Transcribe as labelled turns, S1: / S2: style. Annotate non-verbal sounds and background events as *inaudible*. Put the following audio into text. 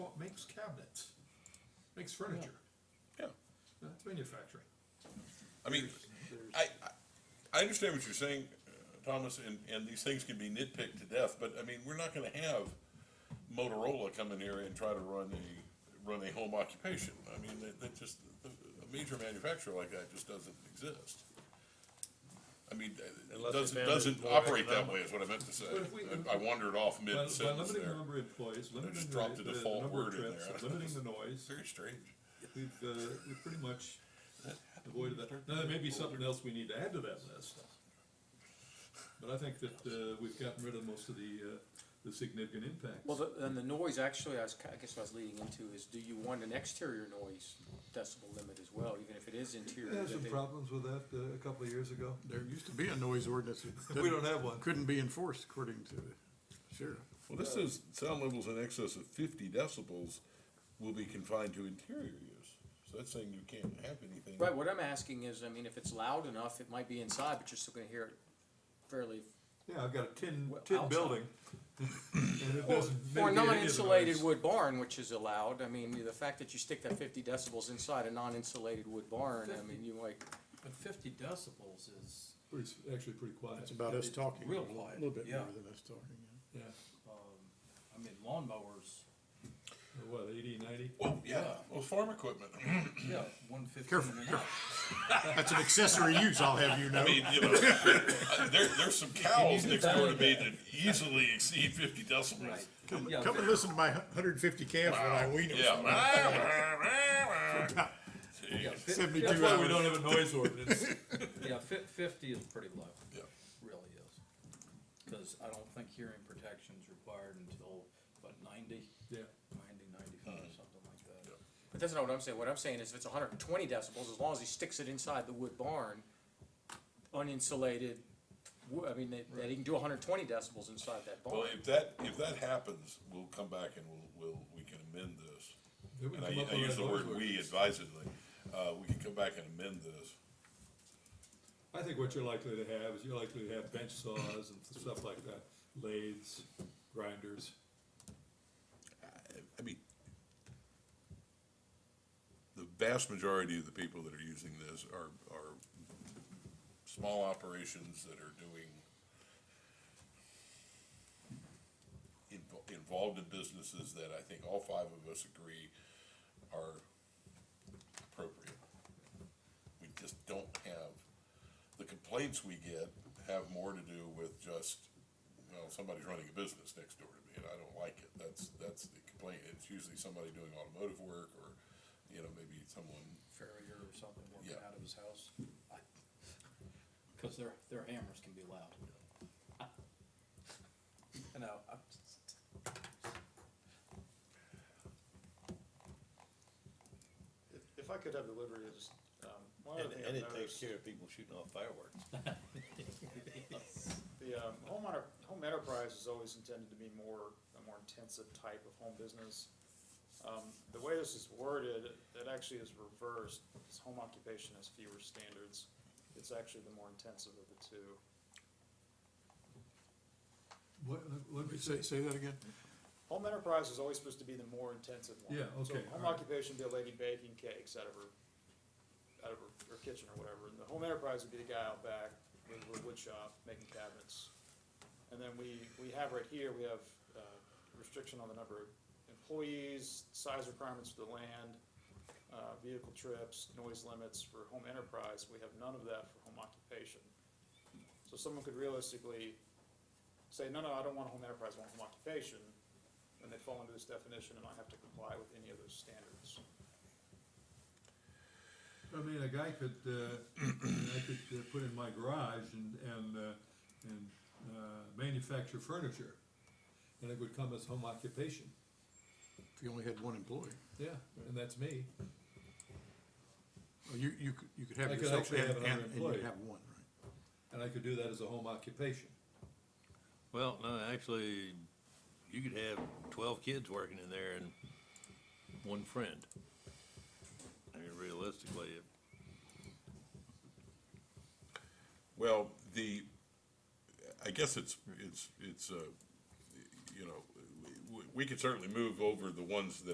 S1: cabinets, makes furniture.
S2: Yeah.
S1: That's manufacturing.
S2: I mean, I, I- I understand what you're saying, uh, Thomas, and, and these things can be nitpicked to death, but I mean, we're not gonna have Motorola come in here and try to run a, run a home occupation. I mean, that, that just, a a major manufacturer like that just doesn't exist. I mean, it
S3: Unless they
S2: doesn't,
S3: found
S2: doesn't
S3: it more
S2: operate that way is what I meant to say.
S1: But if we-
S2: I I wandered off
S1: By by
S2: mid-sentence
S1: limiting the
S2: there.
S1: number of employees, limiting
S2: just
S1: the,
S2: dropped a
S1: the- the
S2: default
S1: number of
S2: word in
S1: trips, *laughs*
S2: there.
S1: limiting the noise,
S2: Very strange.
S1: we've, uh, we've pretty much avoided that. Now, there may be something else we need to add to that list. But I think that, uh, we've gotten rid of most of the, uh, the significant impacts.
S4: Well, the- then the noise, actually, I was, ki- I guess what I was leading into is, do you want an exterior noise decibel limit as well, even if it is interior?
S5: We had
S4: that
S5: some
S4: they-
S5: problems with that uh, a couple of years ago.
S6: There used to be a noise ordinance.
S1: *laughs*
S6: that
S5: We don't have one.
S6: Couldn't be enforced according to the sheriff.
S2: Well, this says sound levels in excess of fifty decibels will be confined to interior use. So that's saying you can't have anything.
S4: Right, what I'm asking is, I mean, if it's loud enough, it might be inside, but you're still gonna hear it fairly,
S5: Yeah, I've got a tin,
S4: Well,
S5: tin
S4: outside.
S5: building. *laughs* And it
S4: or
S5: doesn't mitigate
S4: or
S5: any of the
S4: non-insulated
S5: noise.
S4: wood barn, which is allowed, I mean, the fact that you stick that fifty decibels inside a non-insulated wood barn, I mean, you might,
S3: But fifty decibels is,
S1: Pretty, s- actually pretty quiet.
S6: That's about us talking.
S3: Real
S6: A
S3: quiet,
S6: little bit
S3: yeah.
S6: more than us talking. yeah.
S1: Yeah,
S3: um, I mean lawnmowers,
S1: what, eighty, ninety?
S2: Well, yeah, well, farm *laughs* equipment. I
S3: yeah, one fifteen
S6: Careful,
S3: and up.
S6: *laughs* That's an accessory use, I'll have you know.
S2: mean, you know, *laughs* uh, there, there's some cows next door to me that easily exceed fifty decibels.
S3: Right.
S6: Come,
S3: Yeah,
S6: come and listen to my hundred and fifty calves when
S2: Oh,
S6: I wean them.
S2: Yeah. *laughs*
S3: Yeah,
S2: Jeez.
S3: fif-
S6: Seventy-two
S1: That's why we don't
S6: hours.
S1: have a noise ordinance.
S3: Yeah, fif- fifty is pretty low,
S2: Yeah.
S3: really is. Cause I don't think hearing protection's required until, what, ninety?
S1: *laughs* Yeah.
S3: Ninety, ninety-five,
S6: Mm-hmm.
S3: something like that.
S4: but that's not what I'm saying, what I'm saying is if it's hundred and twenty decibels, as long as he sticks it inside the wood barn, uninsulated, wo- I mean, that, that he can do hundred and twenty decibels inside that barn.
S2: Well, if that, if that happens, we'll come back and we'll, we'll, we can amend this.
S1: Then we
S2: And I,
S1: come up
S2: I
S1: with
S2: use
S1: that
S2: the
S1: noise
S2: word
S1: ordinance.
S2: we advisedly. Uh, we can come back and amend this.
S1: I think what you're likely to have is you're likely to have bench saws and stuff like that, lathes, grinders.
S2: I mean, the vast majority of the people that are using this are, are small operations that are doing invo- involved in businesses that I think all five of us agree are appropriate. We just don't have, the complaints we get have more to do with just, well, somebody's running a business next door to me and I don't like it. That's, that's the complaint. It's usually somebody doing automotive work or, you know, maybe someone,
S3: Farrier or something working
S2: Yeah.
S3: out of his house. I- Cause their, their hammers can be loud. *laughs* You know, I'm just-
S7: If, if I could have the liberty of just, um, one
S8: And,
S7: other thing
S8: and
S7: I've
S8: it takes
S7: noticed,
S8: care of people shooting off
S3: *laughs*
S8: fireworks.
S7: the, um, home enter, home enterprise is always intended to be more, a more intensive type of home business. Um, the way this is worded, it actually is reversed, because home occupation has fewer standards. It's actually the more intensive of the two.
S6: What, let me say, say that again?
S7: Home enterprise is always supposed to be the more intensive one.
S1: Yeah,
S7: So
S1: okay,
S7: home
S1: alright.
S7: occupation would be a lady baking cakes out of her, out of her, her kitchen or whatever, and the home enterprise would be the guy out back with a wood shop making cabinets. And then we, we have right here, we have, uh, restriction on the number of employees, size requirements for the land, uh, vehicle trips, noise limits for home enterprise, we have none of that for home occupation. So someone could realistically say, no, no, I don't want a home enterprise, I want home occupation, and they fall into this definition and I have to comply with any of those standards.
S1: I mean, a guy could, uh, I could uh, put in my garage and, and, uh, and, uh, manufacture furniture. And it would come as home occupation.
S6: If you only had one employee,
S1: Yeah, and that's me.
S6: Or you, you could, you could have
S1: I could
S6: yourself
S1: actually
S6: and,
S1: have
S6: and
S1: another
S6: and
S1: employee.
S6: you'd have one, right?
S1: And I could do that as a home occupation.
S8: Well, no, actually, you could have twelve kids working in there and one friend. I mean, realistically, it-
S2: well, the, I guess it's, it's, it's, uh, you know, we, we could certainly move over the ones that